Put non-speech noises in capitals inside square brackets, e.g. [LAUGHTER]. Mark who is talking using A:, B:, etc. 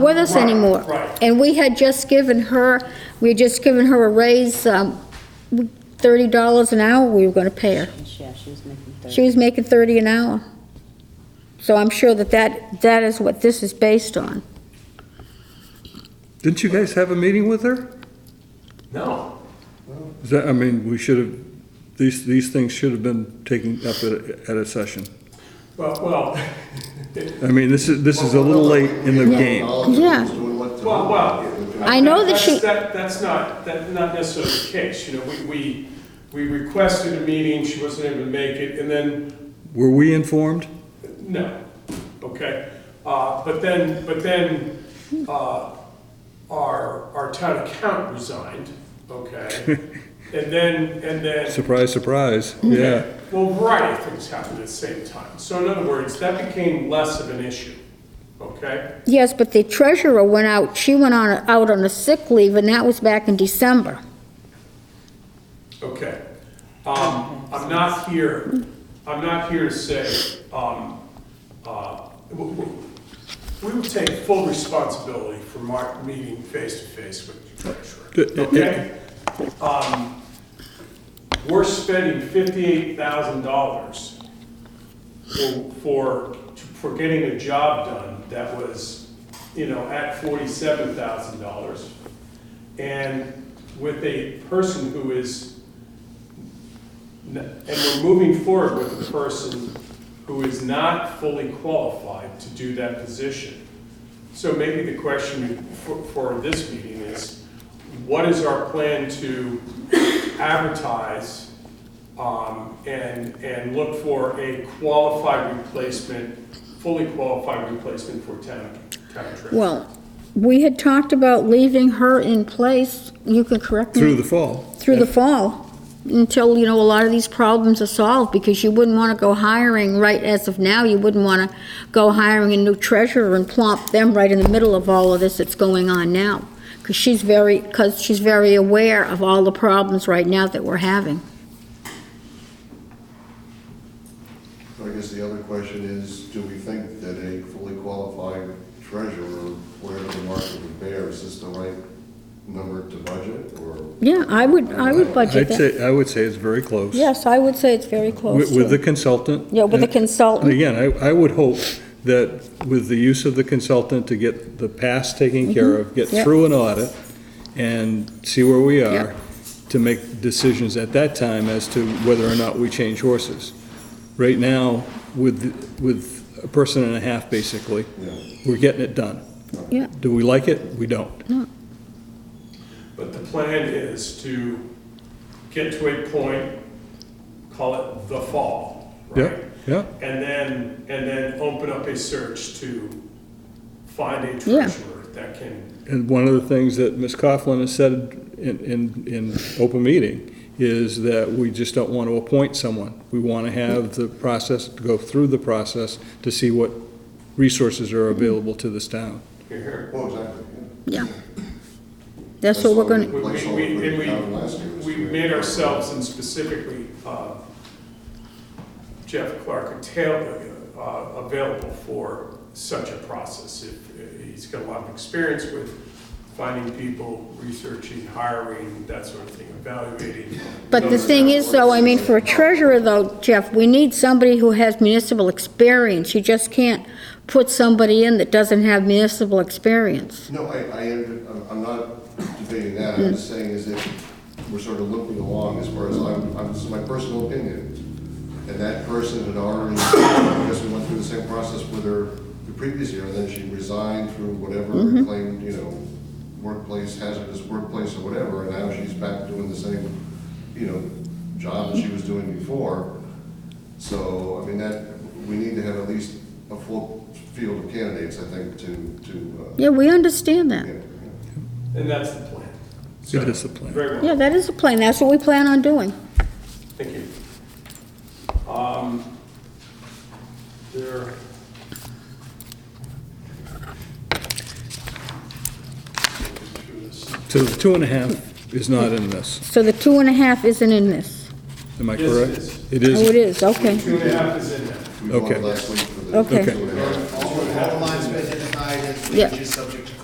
A: with us
B: Right,
A: anymore.
B: right.
A: And we had just given her, we had just given her a raise, um, thirty dollars an hour we were gonna pay her.
C: Yeah, she was making
A: She
C: thirty.
A: was making thirty an hour. So I'm sure that that, that is what this is based on.
D: Didn't you guys have a meeting with her?
B: No.
D: Is that, I mean, we should have, these, these things should have been taken up at, a- at a session.
B: Well, well,
D: I mean, this is, this is a little late in the game.
A: Yeah.
B: well, well.
A: I know that she-
B: That's- that- That's not, that's not necessarily the case, you know, we, we, we requested a meeting, she wasn't able to make it, and then
D: Were we informed?
B: No, okay. Uh, But then, but then uh, our, our town accountant resigned, okay?
A: [LAUGHS]
B: And then, and then,
D: Surprise, surprise, yeah.
B: well, a variety of things happened at the same time. So in other words, that became less of an issue, okay?
A: Yes, but the treasurer went out, she went on, out on a sick leave, and that was back in December.
B: Okay. Um, I'm not here, I'm not here to say, um, uh, w- w- we would take full responsibility for Mark meeting face-to-face with the
D: Good.
B: treasurer, okay? Um, We're spending fifty-eight thousand dollars for, for getting a job done that was, you know, at forty-seven thousand dollars. And with a person who is, and we're moving forward with a person who is not fully qualified to do that position. So maybe the question for, for this meeting is, what is our plan to advertise um, and, and look for a qualified replacement, fully qualified replacement for town, town treasurer?
A: Well, we had talked about leaving her in place, you can correct me.
D: Through the fall.
A: through the fall, until, you know, a lot of these problems are solved, because you wouldn't want to go hiring right as of now, you wouldn't want to go hiring a new treasurer and plump them right in the middle of all of this that's going on now, because she's very, because she's very aware of all the problems right now that we're having.
E: I guess the other question is, do we think that a fully qualified treasurer, whatever the market would bear, is this the right number to budget, or?
A: Yeah, I would, I would budget
D: Uh, I'd
A: that.
D: say, I would say it's very close.
A: Yes, I would say it's very close
D: With, with
A: to
D: the uh,
A: it.
D: consultant.
A: Yeah, with the
D: And
A: consultant,
D: again, I, I would hope that with the use of the consultant to get the past taken care of, get
A: Mm-hmm. Yep.
D: through an audit, and see where we are,
A: Yep.
D: to make decisions at that time as to whether or not we change horses. Right now, with, with a person and a half, basically, we're getting it done.
A: yeah,
D: Do we like it? We don't.
B: But the plan is to get to a point, call it the fall,
D: Yeah,
B: right?
D: yeah.
B: And then, and then open up a search to find a
A: Yeah.
B: treasurer that can,
D: And one of the things that Ms. Coughlin has said in, in, in open meeting is that we just don't want to appoint someone. We want to have the process, go through the process to see what resources are available to this town.
B: here, here.
E: Well, exactly.
A: yeah. That's what we're gonna,
B: We, we, we, and we, we made ourselves and specifically, uh, Jeff Clark, a tail, uh, available for such a process. If- He's got a lot of experience with finding people, researching, hiring, that sort of thing, evaluating.
A: But the thing is, though, I mean, for a treasurer, though, Jeff, we need somebody who has municipal experience. You just can't put somebody in that doesn't have municipal experience.
E: No, I, I, am- I'm- I'm not debating that, I'm just saying is that we're sort of looking along as far as, I'm, I'm, this is my personal opinion. And that person had already, I guess we went through the same process with her the previous year, and then she resigned through whatever claimed, you know, workplace, hazardous workplace or whatever, and now she's back doing the same, you know, job that she was doing before. So, I mean, that, we need to have at least a full field of candidates, I think, to, to, uh,
A: Yeah, we understand that.
E: yeah.
B: And that's the plan.
D: It is the plan.
B: Very well.
A: Yeah, that is a plan. That's what we plan on doing.
B: Thank you. Um, There.
D: So the two and a half is not in this,
A: So the two and a half isn't in this.
D: am I
B: Yes, it
D: correct?
B: is.
D: It
A: Oh, it
D: is,
A: is, okay.
B: Two and a half is in there.
E: We voted
D: Okay.
E: last week for the.
A: Okay.
E: two and a half.
F: All the lines been identified as
A: Yeah.
F: wages of